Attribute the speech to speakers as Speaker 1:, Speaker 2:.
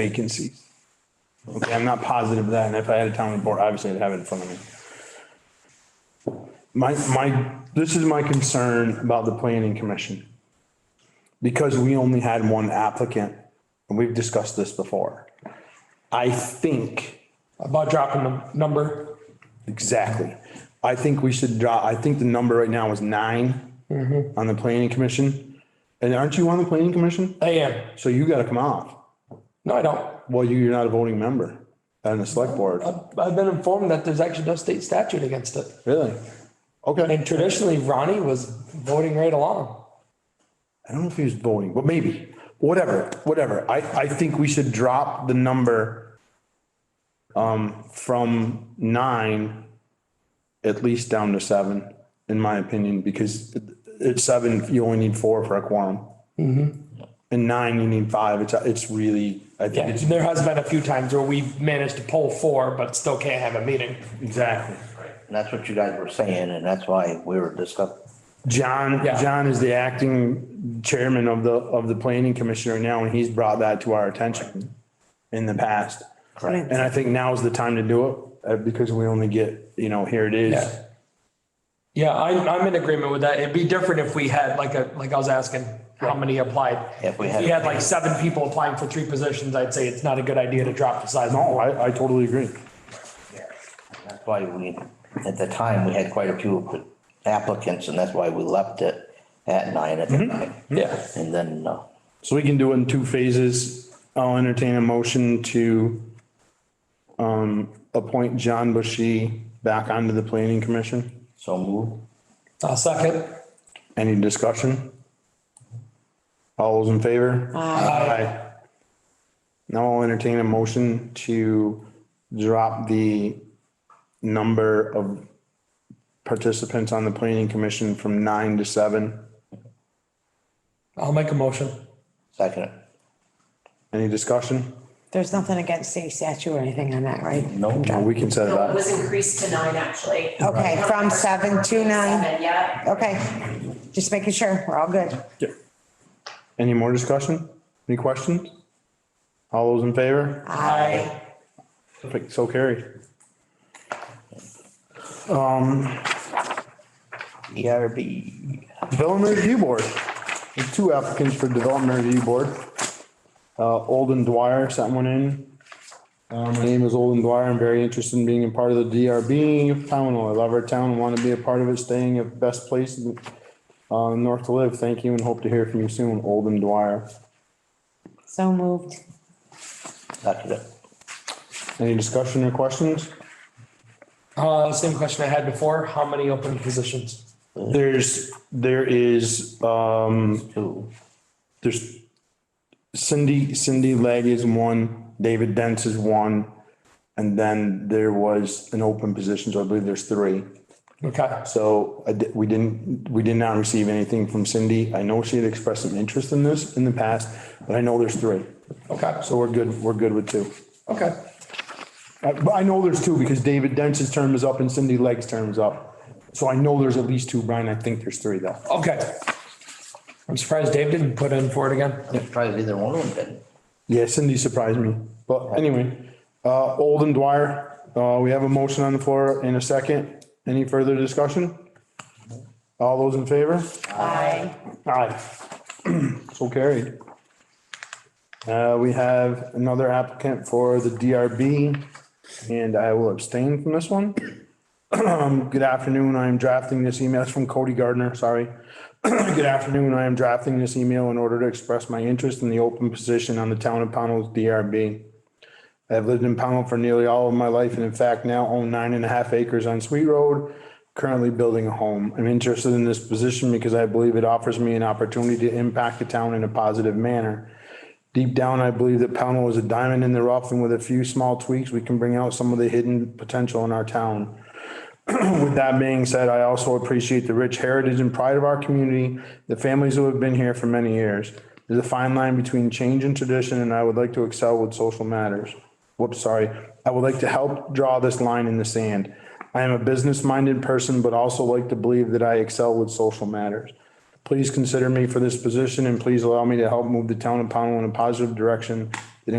Speaker 1: vacancies. Okay, I'm not positive of that, and if I had a town report, obviously I'd have it in front of me. My, my, this is my concern about the planning commission. Because we only had one applicant, and we've discussed this before. I think
Speaker 2: about dropping the number.
Speaker 1: Exactly. I think we should draw, I think the number right now is nine on the planning commission. And aren't you on the planning commission?
Speaker 2: I am.
Speaker 1: So you gotta come off.
Speaker 2: No, I don't.
Speaker 1: Well, you- you're not a voting member on the select board,
Speaker 2: I've- I've been informed that there's actually no state statute against it.
Speaker 1: really? Okay.
Speaker 2: And traditionally, Ronnie was voting right along.
Speaker 1: I don't know if he was voting, but maybe, whatever, whatever. I, I think we should drop the number um, from nine at least down to seven, in my opinion, because at seven, you only need four for a quorum. And nine, you need five. It's, it's really, I think
Speaker 2: Yeah,
Speaker 1: it's.
Speaker 2: there has been a few times where we've managed to pull four, but still can't have a meeting.
Speaker 1: Exactly.
Speaker 3: And that's what you guys were saying, and that's why we were discussing.
Speaker 1: John,
Speaker 2: Yeah.
Speaker 1: John is the acting chairman of the, of the planning commissioner now, and he's brought that to our attention in the past.
Speaker 3: Correct.
Speaker 1: And I think now is the time to do it, uh, because we only get, you know, here it
Speaker 2: Yeah.
Speaker 1: is.
Speaker 2: Yeah, I'm, I'm in agreement with that. It'd be different if we had like a, like I was asking, how many applied?
Speaker 3: If we had-
Speaker 2: If like seven people applying for three positions, I'd say it's not a good idea to drop the size.
Speaker 1: No, I, I totally agree.
Speaker 3: That's why we, at the time, we had quite a few applicants, and that's why we left it at nine at the time.
Speaker 2: Yeah.
Speaker 3: And then, uh,
Speaker 1: So we can do it in two phases. I'll entertain a motion to um, appoint John Bushy back onto the planning commission.
Speaker 3: so moved.
Speaker 2: I'll Uh, second.
Speaker 1: Any discussion? All those in favor? Aye. Now I'll entertain a motion to drop the number of participants on the planning commission from nine to seven.
Speaker 2: I'll make a motion.
Speaker 3: Second,
Speaker 1: Any discussion?
Speaker 4: There's nothing against state statute or anything on that, right?
Speaker 3: no,
Speaker 1: Well, We can set it
Speaker 5: No, it
Speaker 1: up.
Speaker 5: was increased to nine, actually.
Speaker 4: Okay, from seven to nine.
Speaker 5: Seven, yeah.
Speaker 4: Okay, just making sure, we're all good.
Speaker 1: Yeah. Any more discussion? Any questions? All those in favor?
Speaker 2: Aye.
Speaker 1: Perfect, so carried.
Speaker 3: E ERB.
Speaker 1: Development Review Board. There's Two applicants for Development Review Board. Uh, Olden Dwyer sent one in. Uh, my name is Olden Dwyer. I'm very interested in being a part of the DRB panel. I love our town and want to be a part of it, staying at best place in, uh, north to live. Thank you and hope to hear from you soon, Olden Dwyer.
Speaker 4: So moved.
Speaker 3: Second,
Speaker 1: Any discussion or questions?
Speaker 2: Uh, same question I had before. How many open positions?
Speaker 1: There's, there is, um,
Speaker 3: two.
Speaker 1: there's Cindy, Cindy Legg is one, David Dents is one. And then there was an open position, so I believe there's three.
Speaker 2: Okay.
Speaker 1: So I di- we didn't, we did not receive anything from Cindy. I know she had expressed some interest in this in the past, but I know there's three.
Speaker 2: Okay.
Speaker 1: So we're good, we're good with two.
Speaker 2: Okay.
Speaker 1: Uh, But I know there's two because David Dents' term is up and Cindy Legg's term is up. So I know there's at least two, Brian. I think there's three though.
Speaker 2: Okay. I'm surprised Dave didn't put in for it again.
Speaker 3: I'm surprised either one of them didn't.
Speaker 1: Yeah, Cindy surprised me. But anyway, uh, Olden Dwyer, uh, we have a motion on the floor in a second. Any further discussion? All those in favor?
Speaker 4: Aye.
Speaker 1: Aye. So carried. Uh, we have another applicant for the DRB and I will abstain from this one. Um, Good afternoon. I am drafting this email. It's from Cody Gardner, sorry. Good afternoon. I am drafting this email in order to express my interest in the open position on the town of Pownell's DRB. I have lived in Pownell for nearly all of my life and in fact now own nine and a half acres on Sweet Road, currently building a home. I'm interested in this position because I believe it offers me an opportunity to impact the town in a positive manner. Deep down, I believe that Pownell is a diamond in the rough and with a few small tweaks, we can bring out some of the hidden potential in our town. With that being said, I also appreciate the rich heritage and pride of our community, the families who have been here for many years. There's a fine line between change and tradition, and I would like to excel with social matters. Whoops, sorry. I would like to help draw this line in the sand. I am a business-minded person, but also like to believe that I excel with social matters. Please consider me for this position and please allow me to help move the town of Pownell in a positive direction